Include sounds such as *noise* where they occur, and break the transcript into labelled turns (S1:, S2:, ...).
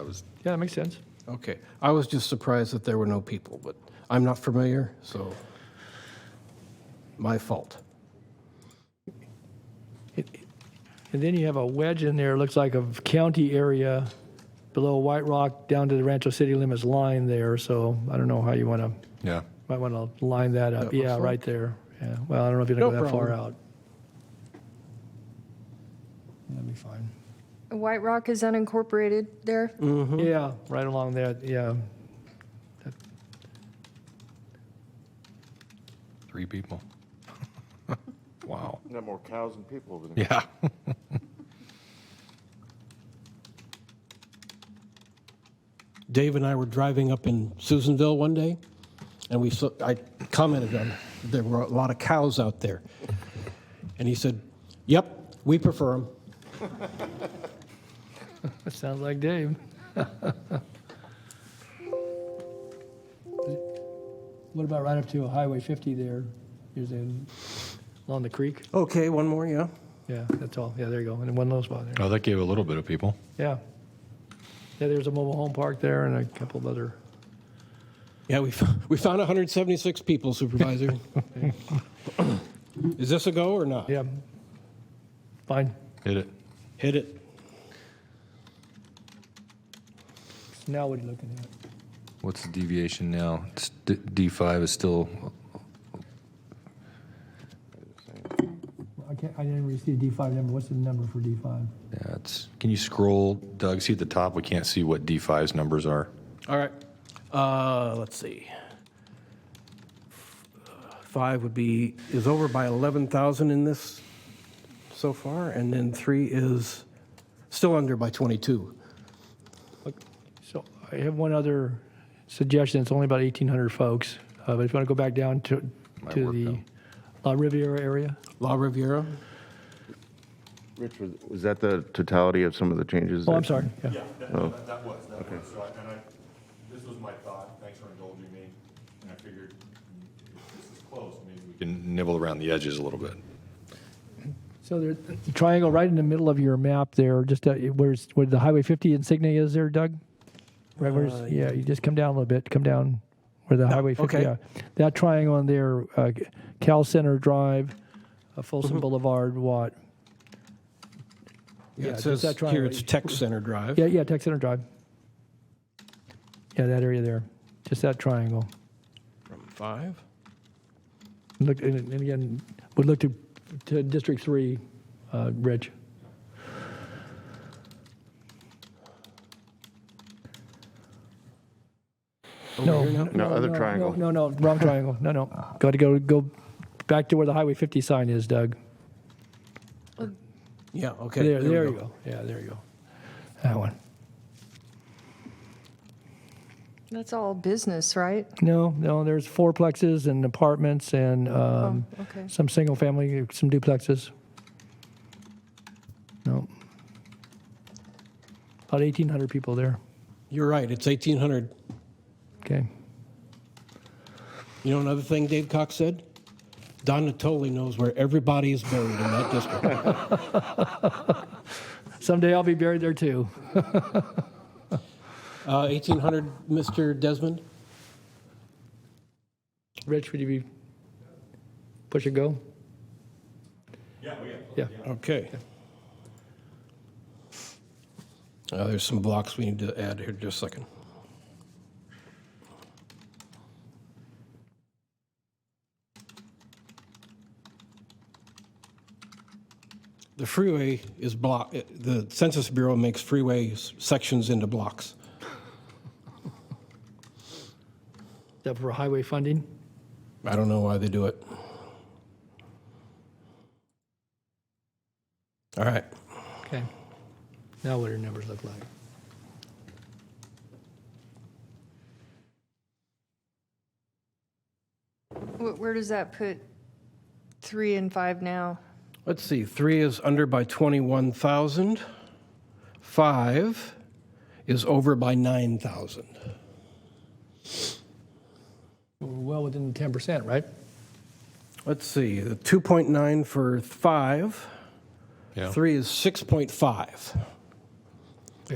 S1: was,
S2: Yeah, that makes sense.
S1: okay. I was just surprised that there were no people, but I'm not familiar, so my fault.
S2: And then you have a wedge in there, looks like a county area below White Rock down to the Rancho City Limits line there, so I don't know how you want to,
S3: Yeah.
S2: might want to line that up.
S1: That
S2: Yeah,
S1: looks
S2: right there. Yeah, well, I don't know if you're going to
S1: No
S2: go that far
S1: problem.
S2: out. That'd be fine.
S4: White Rock is unincorporated there.
S2: Yeah, right along that, yeah.
S3: Three people. *laughs* wow.
S5: Got more cows than people over there.
S3: Yeah.
S1: Dave and I were driving up in Susanville one day, and we saw, I commented on there were a lot of cows out there, and he said, "Yep, we prefer them."
S2: That sounds like Dave. *laughs* What about right up to Highway 50 there? Is in, along the creek?
S1: Okay, one more, yeah.
S2: Yeah, that's all. Yeah, there you go. And one little spot there.
S3: Oh, that gave a little bit of people.
S2: Yeah. Yeah, there's a mobile home park there and a couple of other.
S1: Yeah, we, *laughs* f- we found 176 people, *laughs* Supervisor. Is this a go or not?
S2: Yeah. Fine.
S3: Hit it.
S1: Hit it.
S2: Now what are you looking at?
S3: What's the deviation now? It's D- D5 is still.
S2: I can't, I didn't really see a D5 number. What's the number for D5?
S3: Yeah, it's. Can you scroll, Doug? See at the top, we can't see what D5's numbers are.
S1: All right. Uh, let's see. Five would be, is over by 11,000 in this so far, and then three is still under by 22.
S2: So I have one other suggestion. It's only about 1,800 folks. Uh, But if you want to go back down to,
S3: Might
S2: to
S3: work
S2: the
S3: out.
S2: La Riviera area?
S1: La Riviera?
S5: Rich, was- was that the totality of some of the changes?
S2: Oh,
S5: that-
S2: I'm sorry. Yeah.
S6: Yeah, that,
S3: Oh.
S6: that that was, that was, so I, and I, this was my thought, thanks for indulging me, and I figured, if this is close, maybe we
S3: We can nibble around the edges a little bit.
S2: So there's the triangle right in the middle of your map there, just uh, where's where the Highway 50 insignia is there, Doug? Right where's
S1: Uh, Oh,
S2: yeah, you just come down a little bit, come down where the Highway 50.
S1: okay.
S2: Yeah, that triangle in there, uh, Cal Center Drive, uh,
S1: Mm-hmm.
S2: Folsom Boulevard, Watt.
S1: Yeah, it
S2: just
S1: says
S2: that
S1: here
S2: triangle.
S1: it's Tech Center Drive.
S2: Yeah, yeah, Tech Center Drive. Yeah, that area there, just that triangle.
S1: From five?
S2: Look, and, and again, would look to, to District Three, uh, Rich. No, no,
S5: No, other triangle.
S2: No, no,
S5: *laughs*
S2: wrong triangle. No, no. Got to go go back to where the Highway 50 sign is, Doug.
S1: Yeah, okay.
S2: There,
S1: we
S2: there you go. Yeah, there you go. That one.
S4: That's all business, right?
S2: No, no. There's fourplexes and apartments and um,
S4: Oh, okay.
S2: some single family, some duplexes. No. About 1,800 people there.
S1: You're right, it's 1,800.
S2: Okay.
S1: You know another thing Dave Cox said? Don Natoli knows where everybody is buried in that
S2: *laughs*
S1: district.
S2: Someday I'll be buried there too.
S1: Uh, 1,800, Mr. Desmond?
S2: Rich, would you be push a go? Yeah, we yeah.
S1: Okay. Uh, There's some blocks we need to add here, just a second. The freeway is block, eh, the Census Bureau makes freeways sections into blocks.
S2: That for highway funding.
S1: I don't know why they do it. All right.
S2: Okay. Now what do your numbers look like?
S4: Wh- Where does that put three and five now?
S1: Let's see, three is under by 21,000. Five is over by 9,000.
S2: We're well within ten percent, right?
S1: Let's see, the 2.9 for five.
S3: Yeah.
S1: Three is 6.5.